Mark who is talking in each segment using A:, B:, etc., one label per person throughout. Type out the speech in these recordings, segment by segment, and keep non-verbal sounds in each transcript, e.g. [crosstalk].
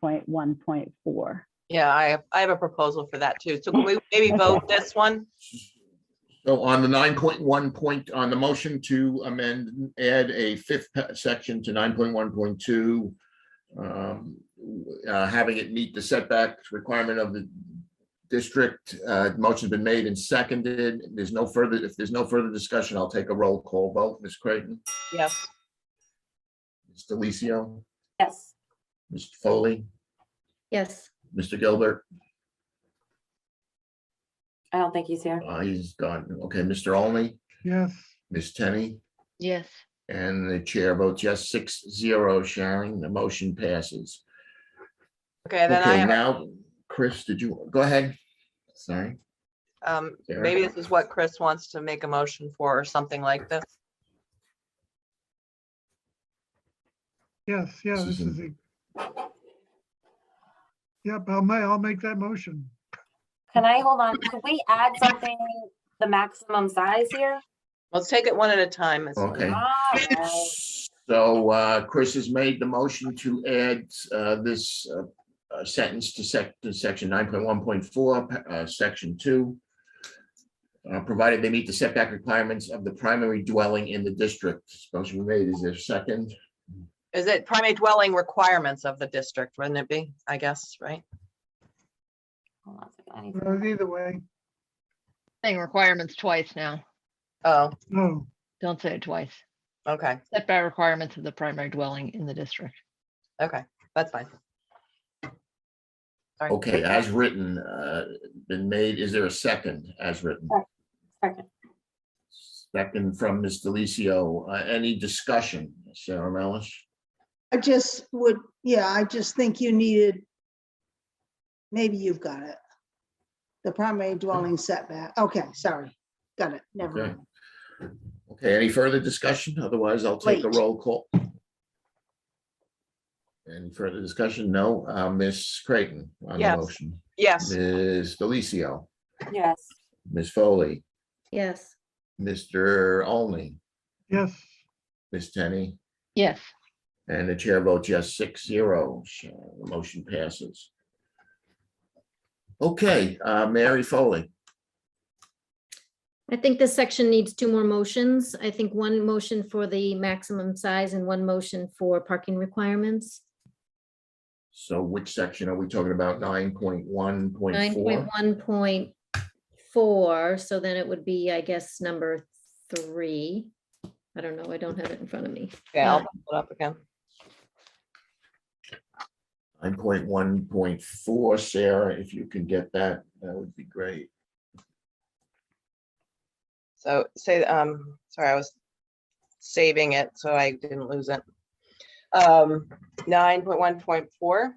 A: point one point four.
B: Yeah, I have, I have a proposal for that too. So can
C: [laughs]
B: we maybe vote this one?
C: So on the nine point one point, on the motion to amend, add a fifth pa- section to nine point one point two. um, uh, Having it meet the setback requirement of the district, uh, motion's been made and seconded. There's no further, if there's no further discussion, I'll take a roll call vote. Ms. Creighton,
B: Yes.
C: Ms. Delicio,
A: Yes.
C: Ms. Foley,
D: Yes.
C: Mr. Gilbert,
E: I don't think he's here.
C: uh, he's gone. Okay, Mr. Only,
F: yes,
C: Ms. Tenney,
D: Yes.
C: and the chair votes yes, six zero, Sharon. The motion passes.
B: Okay, then I
C: Okay,
B: have a
C: now, Chris, did you, go ahead. Sorry.
B: Um,
C: Sarah?
B: maybe this is what Chris wants to make a motion for or something like this.
F: yes, yeah, this is. the- Yep, I'll ma, I'll make that motion.
E: Can I hold on? Can we add something, the maximum size here? Ah,
B: Let's take it one at a time. It's-
C: Okay.
E: Alright.
C: So uh, Chris has made the motion to add uh, this uh, uh, sentence to sec, to section nine point one point four, section two. uh, Provided they meet the setback requirements of the primary dwelling in the district. Motion made, is there a second?
B: Is it primary dwelling requirements of the district, wouldn't it be? I guess, right?
E: Hold on a second, I need
F: Uh, Either way,
D: Saying requirements twice now.
B: Oh,
F: no,
D: Don't say it twice.
B: okay,
D: Setback requirements of the primary dwelling in the district.
B: okay, that's fine. Sorry.
C: Okay, as written, uh, been made, is there a second as written?
E: Second.
C: Second from Ms. Delicio, Uh, any discussion, Sarah Melish?
G: I just would, yeah, I just think you needed, maybe you've got it. The primary dwelling setback. Okay, sorry. Got it. Never
C: Okay.
G: mind.
C: Okay, any further discussion? Otherwise, I'll take a
G: Wait.
C: roll call. Any further discussion? No, Uh, Ms. Creighton on the
B: Yes.
C: motion,
B: Yes,
C: Ms. Delicio,
E: Yes,
C: Ms. Foley,
D: Yes.
C: Mr. Only,
F: yes,
C: Ms. Tenney,
D: Yes.
C: and the chair votes yes, six zero. So The motion passes. Okay, uh, Mary Foley,
H: I think this section needs two more motions. I think one motion for the maximum size and one motion for parking requirements.
C: so which section are we talking about? Nine point one point
H: Nine
C: four?
H: point one point four, so then it would be, I guess, number three. I don't know, I don't have it in front of me.
B: yeah, I'll pull it up again.
C: Nine point one point four, Sarah, if you can get that, that would be great.
B: So say, um, sorry, I was saving it, so I didn't lose it. Um, nine point one point four,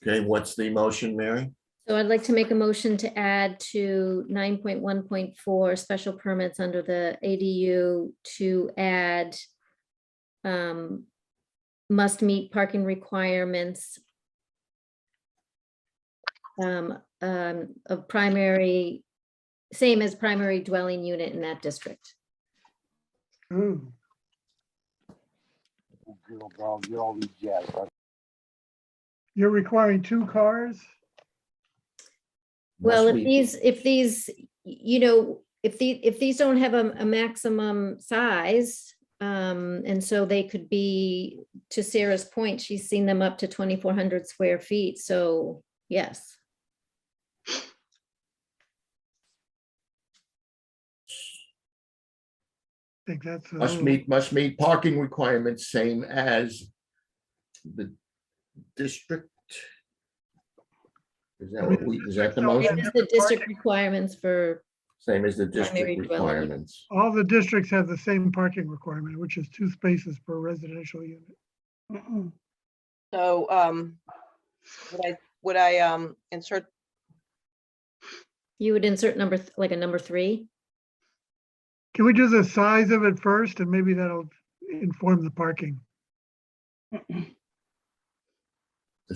C: Okay, what's the motion, Mary?
H: So I'd like to make a motion to add to nine point one point four, special permits under the ADU to add um, must meet parking requirements um, um, of primary, same as primary dwelling unit in that district.
F: ooh, you're requiring two cars?
H: Well,
C: Must
H: if
C: we-
H: these, if these, you know, if the, if these don't have a, a maximum size, um, and so they could be, to Sarah's point, she's seen them up to twenty-four hundred square feet, so yes.
F: I think that's. uh, a
C: Must
F: little-
C: meet, must meet parking requirements, same as the district. Is that what we, is that the
F: No, we
C: motion?
F: have-
H: It's the district requirements for,
C: Same as the
H: Primary
C: district
H: dwelling.
C: requirements.
F: All the districts have the same parking requirement, which is two spaces per residential unit.
G: Mm-mm.
B: so, um, would I, would I, um, insert
H: you would insert number, th- like a number three,
F: Can we do the size of it first and maybe that'll inform the parking?
C: The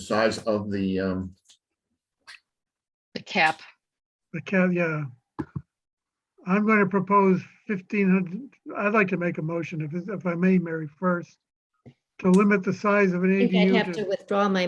C: size of the, um,
D: The cap.
F: The ca- yeah. I'm going to propose fifteen hundred, I'd like to make a motion if, it's- if I may, Mary, first, to limit the size of an
H: I think I'd
F: ADU
H: have
F: to
H: to withdraw my